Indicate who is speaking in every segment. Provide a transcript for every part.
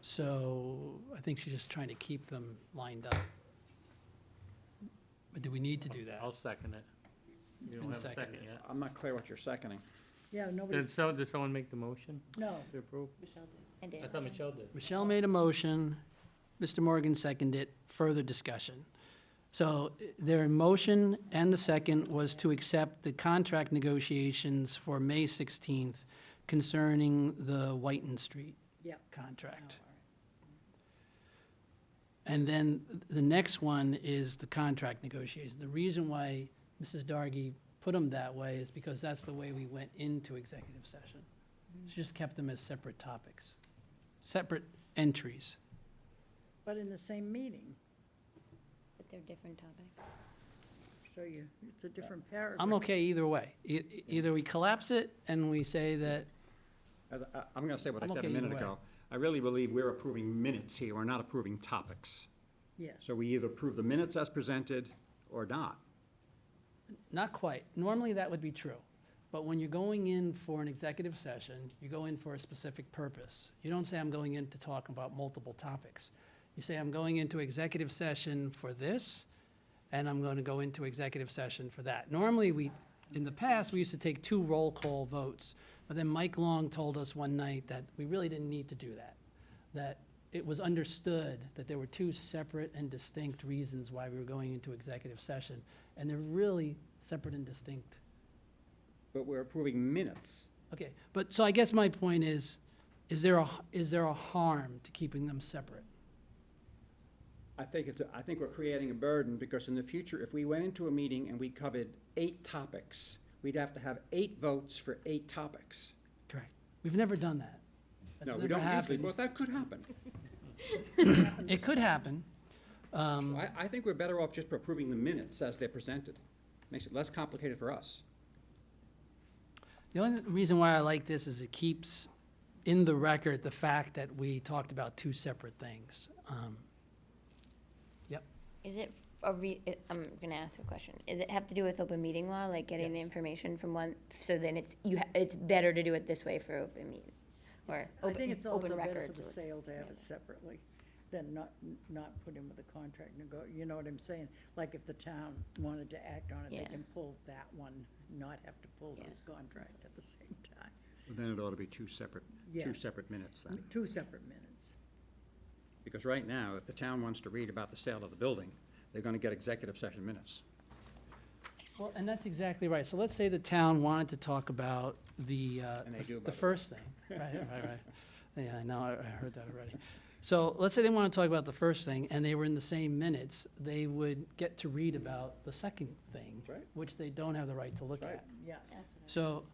Speaker 1: So I think she's just trying to keep them lined up. But do we need to do that?
Speaker 2: I'll second it. You don't
Speaker 1: been
Speaker 2: have a second
Speaker 1: seconded.
Speaker 2: yet.
Speaker 3: I'm not clear what you're seconding.
Speaker 4: Yeah,
Speaker 2: Did
Speaker 4: nobody's,
Speaker 2: so, did someone make the motion
Speaker 4: no,
Speaker 2: to approve?
Speaker 5: And
Speaker 2: I thought Michelle did.
Speaker 1: Michelle made a motion, Mr. Morgan seconded it, further discussion. So eh, their motion and the second was to accept the contract negotiations for May 16th concerning the Whiten Street
Speaker 4: Yep.
Speaker 1: contract. And then the next one is the contract negotiation. The reason why Mrs. Dargy put them that way is because that's the way we went into executive session. She just kept them as separate topics, separate entries.
Speaker 4: but in the same meeting,
Speaker 5: But they're different topics.
Speaker 4: so you, it's a different paragraph.
Speaker 1: I'm okay either way. E- e- Either we collapse it and we say that,
Speaker 3: As, I, I'm gonna say what I
Speaker 1: I'm
Speaker 3: said a
Speaker 1: okay
Speaker 3: minute
Speaker 1: either
Speaker 3: ago. I really believe we're approving minutes here, we're not approving topics.
Speaker 4: Yes,
Speaker 3: So we either approve the minutes as presented or not.
Speaker 1: not quite. Normally, that would be true. But when you're going in for an executive session, you go in for a specific purpose. You don't say, I'm going in to talk about multiple topics. You say, I'm going into executive session for this, and I'm going to go into executive session for that. Normally, we, in the past, we used to take two roll call votes, but then Mike Long told us one night that we really didn't need to do that, that it was understood that there were two separate and distinct reasons why we were going into executive session, and they're really separate and distinct.
Speaker 3: But we're approving minutes.
Speaker 1: Okay, but, so I guess my point is, is there a, is there a harm to keeping them separate?
Speaker 3: I think it's, a- I think we're creating a burden, because in the future, if we went into a meeting and we covered eight topics, we'd have to have eight votes for eight topics.
Speaker 1: Correct. We've never done that. That's
Speaker 3: No, we
Speaker 1: never
Speaker 3: don't usually,
Speaker 1: happened.
Speaker 3: but that could happen.
Speaker 1: It could happen. Um,
Speaker 3: I, I think we're better off just approving the minutes as they're presented. Makes it less complicated for us.
Speaker 1: The only reason why I like this is it keeps in the record the fact that we talked about two separate things. Um,
Speaker 5: Is it a re, it- I'm gonna ask a question. Is it have to do with open meeting law, like getting the
Speaker 1: Yes.
Speaker 5: information from one, so then it's, you, ha- it's better to do it this way for open meeting? Or
Speaker 4: I
Speaker 5: open,
Speaker 4: think it's also
Speaker 5: open
Speaker 4: better for
Speaker 5: records?
Speaker 4: the
Speaker 5: or-
Speaker 4: sale to have it separately than not, not put in with the contract and go, you know what I'm saying? Like if the town wanted to act on it, they
Speaker 5: Yeah.
Speaker 4: can pull that one, not have to pull
Speaker 5: Yeah.
Speaker 4: this contract at the same time.
Speaker 3: Then it ought to be two separate, two
Speaker 4: Yes.
Speaker 3: separate minutes then.
Speaker 4: Two separate minutes.
Speaker 3: Because right now, if the town wants to read about the sale of the building, they're gonna get executive session minutes.
Speaker 1: Well, and that's exactly right. So let's say the town wanted to talk about the, uh,
Speaker 3: And they do, by
Speaker 1: the
Speaker 3: the way.
Speaker 1: first thing. Right, right, right. Yeah, I know, I I heard that already. So let's say they want to talk about the first thing, and they were in the same minutes, they would get to read about the second thing,
Speaker 3: That's right.
Speaker 1: which they don't have the right to look
Speaker 3: That's right.
Speaker 1: at.
Speaker 4: Yeah,
Speaker 5: That's what I was-
Speaker 1: So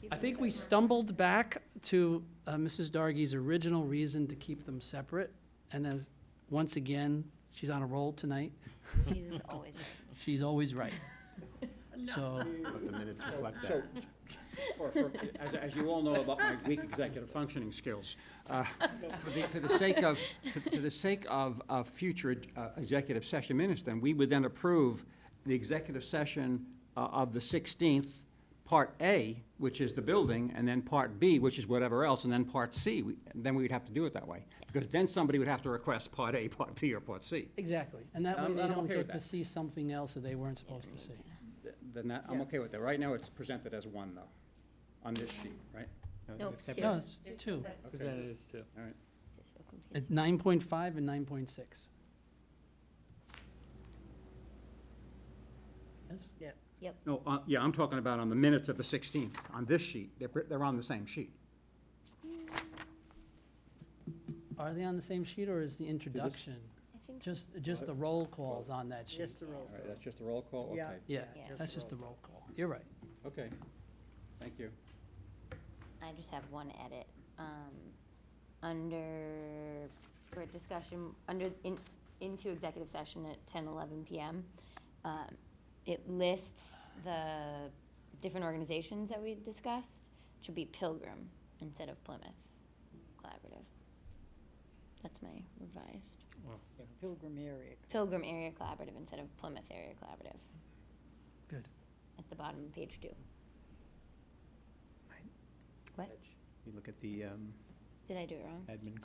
Speaker 5: keep
Speaker 1: I
Speaker 5: them
Speaker 1: think we
Speaker 5: separate.
Speaker 1: stumbled back to uh, Mrs. Dargy's original reason to keep them separate. And then, once again, she's on a roll tonight.
Speaker 5: Jesus is always right.
Speaker 1: She's always right. So,
Speaker 6: Let the minutes reflect
Speaker 3: So,
Speaker 6: that.
Speaker 3: for, for, as, as you all know about my weak executive functioning skills, uh, for the, for the sake of, for- for the sake of, of future uh, executive session minutes, then we would then approve the executive session uh, of the sixteenth, part A, which is the building, and then part B, which is whatever else, and then part C. We- Then we would have to do it that way, because then somebody would have to request part A, part B, or part C.
Speaker 1: exactly. And that way
Speaker 3: I'm-
Speaker 1: they
Speaker 3: I'm
Speaker 1: don't
Speaker 3: okay with
Speaker 1: get to
Speaker 3: that.
Speaker 1: see something else that they weren't supposed to see.
Speaker 3: Th- Then that, I'm
Speaker 4: Yeah.
Speaker 3: okay with that. Right now, it's presented as one, though, on this sheet, right?
Speaker 5: No,
Speaker 6: Except
Speaker 1: No,
Speaker 5: Sue,
Speaker 1: it's two.
Speaker 2: Presented as two.
Speaker 3: All right.
Speaker 5: it's just so confusing.
Speaker 1: At nine point five and nine point six. Yes?
Speaker 4: yeah.
Speaker 3: No, uh, yeah, I'm talking about on the minutes of the 16th, on this sheet. They're, pr- they're on the same sheet.
Speaker 1: Are they on the same sheet or is the introduction,
Speaker 5: I think,
Speaker 1: just, just the roll calls on that sheet?
Speaker 4: Just the roll.
Speaker 3: All right, that's just a roll call?
Speaker 4: Yeah.
Speaker 3: Okay.
Speaker 1: Yeah,
Speaker 5: Yeah.
Speaker 1: that's just the roll call. You're right.
Speaker 3: Okay, thank you.
Speaker 5: I just have one edit. Um, under, for discussion, under, in, into executive session at ten, eleven PM. Um, it lists the different organizations that we discussed, It should be Pilgrim instead of Plymouth Collaborative. That's my revised,
Speaker 4: Pilgrim area.
Speaker 5: Pilgrim Area Collaborative instead of Plymouth Area Collaborative,
Speaker 1: Good.
Speaker 5: at the bottom of page two.
Speaker 6: You look at the um,
Speaker 5: Did I do it wrong?
Speaker 6: admin